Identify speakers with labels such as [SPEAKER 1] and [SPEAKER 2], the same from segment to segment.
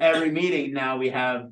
[SPEAKER 1] every meeting now we have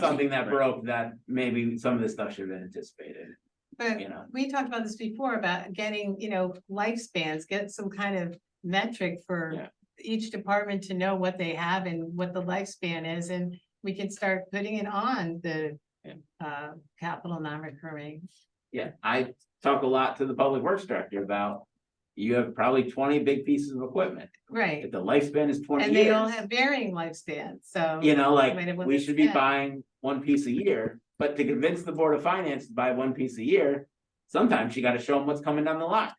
[SPEAKER 1] something that
[SPEAKER 2] Right.
[SPEAKER 1] broke that maybe some of this stuff should have been anticipated,
[SPEAKER 3] But
[SPEAKER 1] you know?
[SPEAKER 3] we talked about this before about getting, you know, lifespans, get some kind of metric
[SPEAKER 1] Yeah.
[SPEAKER 3] for each department to know what they have and what the lifespan is, and we can start putting it on the
[SPEAKER 1] Yeah.
[SPEAKER 3] uh, capital non-recurring.
[SPEAKER 1] Yeah, I talk a lot to the public works director about, you have probably twenty big pieces of equipment.
[SPEAKER 3] Right,
[SPEAKER 1] If the lifespan is twenty
[SPEAKER 3] and they all
[SPEAKER 1] years,
[SPEAKER 3] have varying lifespans, so.
[SPEAKER 1] you know, like,
[SPEAKER 3] Wait, it
[SPEAKER 1] we
[SPEAKER 3] wasn't
[SPEAKER 1] should be
[SPEAKER 3] said.
[SPEAKER 1] buying one piece a year. But to convince the board of finance to buy one piece a year, sometimes you gotta show them what's coming down the line.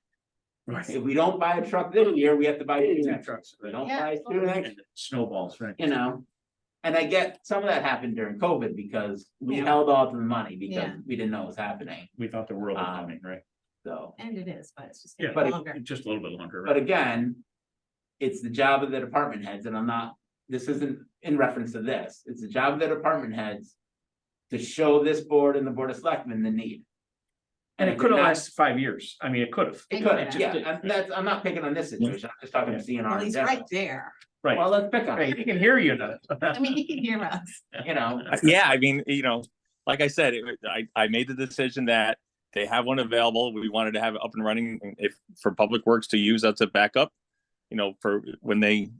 [SPEAKER 2] Right.
[SPEAKER 1] If we don't buy a truck this year, we have to buy two
[SPEAKER 2] Two
[SPEAKER 1] next,
[SPEAKER 2] trucks,
[SPEAKER 1] we
[SPEAKER 2] right?
[SPEAKER 1] don't
[SPEAKER 3] Yeah.
[SPEAKER 1] buy two next,
[SPEAKER 2] And Snowballs, right?
[SPEAKER 1] you know? And I get some of that happened during COVID because we
[SPEAKER 3] Yeah.
[SPEAKER 1] held off the money because
[SPEAKER 3] Yeah.
[SPEAKER 1] we didn't know what was happening,
[SPEAKER 2] We thought the world was
[SPEAKER 1] Um,
[SPEAKER 2] coming, right?
[SPEAKER 1] so.
[SPEAKER 3] And it is, but it's just.
[SPEAKER 2] Yeah,
[SPEAKER 3] gonna
[SPEAKER 1] but
[SPEAKER 3] be
[SPEAKER 1] it-
[SPEAKER 3] longer.
[SPEAKER 2] it- just a little bit longer,
[SPEAKER 1] But
[SPEAKER 2] right?
[SPEAKER 1] again, it's the job of the department heads, and I'm not, this isn't in reference to this, it's the job of the department heads. To show this board and the board of selectmen the need.
[SPEAKER 2] And
[SPEAKER 1] if
[SPEAKER 2] it
[SPEAKER 1] they're
[SPEAKER 2] could have
[SPEAKER 1] not-
[SPEAKER 2] lasted five years. I mean, it could have.
[SPEAKER 1] It
[SPEAKER 3] It
[SPEAKER 1] could,
[SPEAKER 3] could've,
[SPEAKER 1] have, yeah,
[SPEAKER 2] yeah.
[SPEAKER 1] I'm, that's, I'm not picking on this situation, I'm just talking to
[SPEAKER 3] Well,
[SPEAKER 1] CNR in
[SPEAKER 3] he's right
[SPEAKER 1] general.
[SPEAKER 3] there,
[SPEAKER 1] Well,
[SPEAKER 2] Right.
[SPEAKER 1] let's pick on,
[SPEAKER 2] Hey,
[SPEAKER 1] it,
[SPEAKER 2] he can hear you though.
[SPEAKER 3] I mean, he can hear us,
[SPEAKER 1] you know,
[SPEAKER 4] yeah, I mean, you know, like I said, it, I, I made the decision that they have one available. We wanted to have it up and running and if for public works to use as a backup, you know, for when they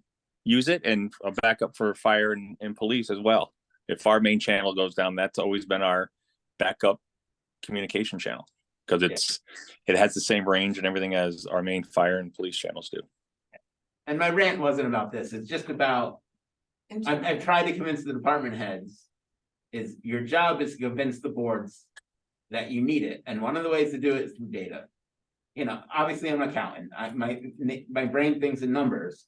[SPEAKER 4] use it and a backup for fire and, and police as well. If our main channel goes down, that's always been our backup communication channel because it's it has the same range and everything as our main fire and police channels do.
[SPEAKER 1] and my rant wasn't about this, it's just about,
[SPEAKER 3] And
[SPEAKER 1] I've, I've tried to convince the department heads. Is your job is to convince the boards that you need it, and one of the ways to do it is through data. You know, obviously, I'm an accountant, I, my, my brain thinks in numbers.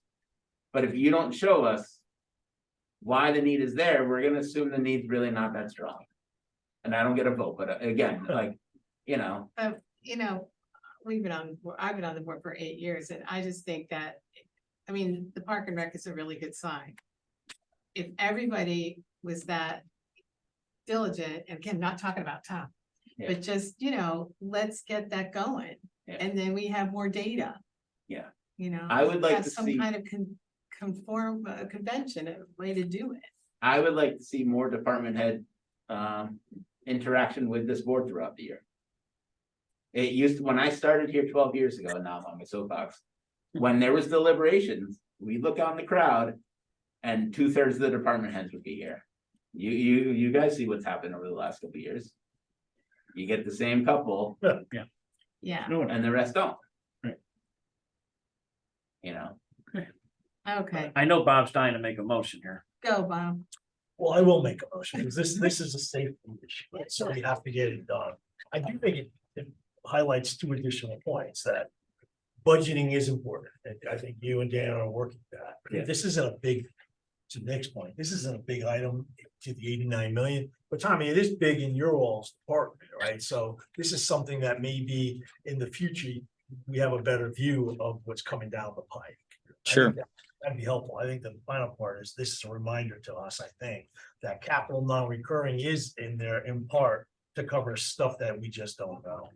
[SPEAKER 1] But if you don't show us. Why the need is there, we're gonna assume the need's really not that strong. And I don't get a vote, but uh, again, like, you know,
[SPEAKER 3] you know, we've been on, I've been on the board for eight years and I just think that, I mean, the park and rec is a really good sign. If everybody was that diligent, and again, not talking about Tom,
[SPEAKER 1] Yeah.
[SPEAKER 3] but just, you know, let's get that going.
[SPEAKER 1] Yeah.
[SPEAKER 3] And then we have more data.
[SPEAKER 1] Yeah.
[SPEAKER 3] You know.
[SPEAKER 1] I would like
[SPEAKER 3] have
[SPEAKER 1] to
[SPEAKER 3] some
[SPEAKER 1] see-
[SPEAKER 3] Kind of con- conform, uh, convention, a way to do it.
[SPEAKER 1] I would like to see more department head um interaction with this board throughout the year. It used, to- when I started here twelve years ago, now I'm on my soapbox, when there was deliberations, we look out in the crowd. And two thirds of the department heads would be here. You you you guys see what's happened over the last couple of years. You get the same couple
[SPEAKER 2] Yeah.
[SPEAKER 3] Yeah,
[SPEAKER 2] No, no.
[SPEAKER 1] and the rest don't.
[SPEAKER 2] Right.
[SPEAKER 1] You know,
[SPEAKER 3] okay,
[SPEAKER 2] I know Bob's dying to make a motion here.
[SPEAKER 3] go Bob.
[SPEAKER 5] Well, I will make a motion, because this, this is a safety issue, right? so we have to get it done. I do think it- it highlights two additional points that budgeting is important, and I think you and Dan are working that.
[SPEAKER 2] Yeah.
[SPEAKER 5] This isn't a big, to the next point, this isn't a big item to the eighty-nine million, but Tommy, it is big in your all's department, right? So this is something that maybe in the future, we have a better view of what's coming down the pike. I think
[SPEAKER 4] Sure.
[SPEAKER 5] that- That'd be helpful. I think the final part is, this is a reminder to us, I think, that capital non-recurring is in there in part to cover stuff that we just don't know.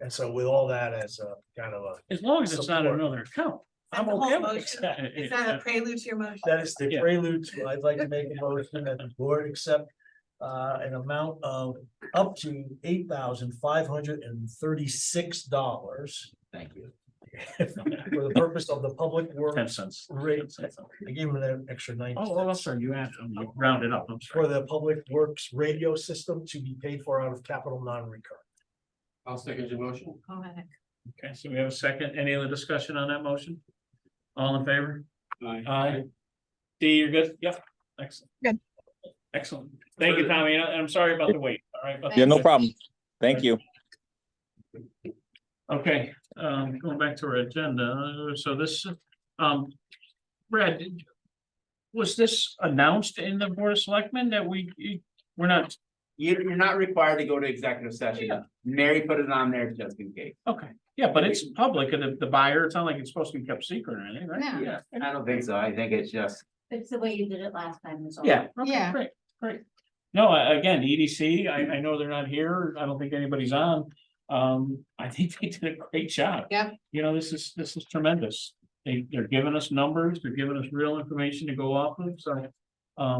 [SPEAKER 5] And so with all that as a kind of a,
[SPEAKER 2] As long as it's not
[SPEAKER 5] Support.
[SPEAKER 2] another account.
[SPEAKER 5] I'm
[SPEAKER 3] That's the whole
[SPEAKER 5] okay with
[SPEAKER 3] motion.
[SPEAKER 5] that.
[SPEAKER 3] Is that a prelude to your motion?
[SPEAKER 5] That is the
[SPEAKER 2] Yeah.
[SPEAKER 5] prelude to, I'd like to make a motion that the board accept uh, an amount of up to eight thousand five hundred and thirty-six dollars
[SPEAKER 1] thank you.
[SPEAKER 5] for the purpose of the public
[SPEAKER 2] Ten
[SPEAKER 5] works
[SPEAKER 2] cents.
[SPEAKER 5] rate. I gave him an extra ninety.
[SPEAKER 2] Oh, oh, I'm
[SPEAKER 5] cents.
[SPEAKER 2] sorry, you added, you rounded up, I'm sorry.
[SPEAKER 5] for the public works radio system to be paid for out of capital non-recurring.
[SPEAKER 1] I'll second your motion.
[SPEAKER 3] Go ahead.
[SPEAKER 2] Okay, so we have a second. Any other discussion on that motion? All in favor? Aye. D, you're good? Yep, excellent.
[SPEAKER 6] Good.
[SPEAKER 2] Excellent. Thank you, Tommy. and I- I'm sorry about the wait. All right. but-
[SPEAKER 4] Yeah, no problem. Thank you.
[SPEAKER 2] Okay, um, going back to our agenda, so this, um, Brad, did- was this announced in the Board of Selectmen that we, we're not,
[SPEAKER 1] You're, you're not required to go to executive session.
[SPEAKER 2] Yeah.
[SPEAKER 1] Mary put it on there just in case.
[SPEAKER 2] okay, yeah, but it's public and the- the buyer, it's not like it's supposed to be kept secret or anything, right?
[SPEAKER 3] No.
[SPEAKER 1] Yeah, I don't think so. I think it's just,
[SPEAKER 7] It's the way you did it last time was all.
[SPEAKER 2] Yeah, okay,
[SPEAKER 3] Yeah.
[SPEAKER 2] great, great. No, I- again, EDC, I, I know they're not here. I don't think anybody's on. Um, I think they did a great job.
[SPEAKER 3] Yep.
[SPEAKER 2] You know, this is, this is tremendous. They, they're giving us numbers, they're giving us real information to go off of, so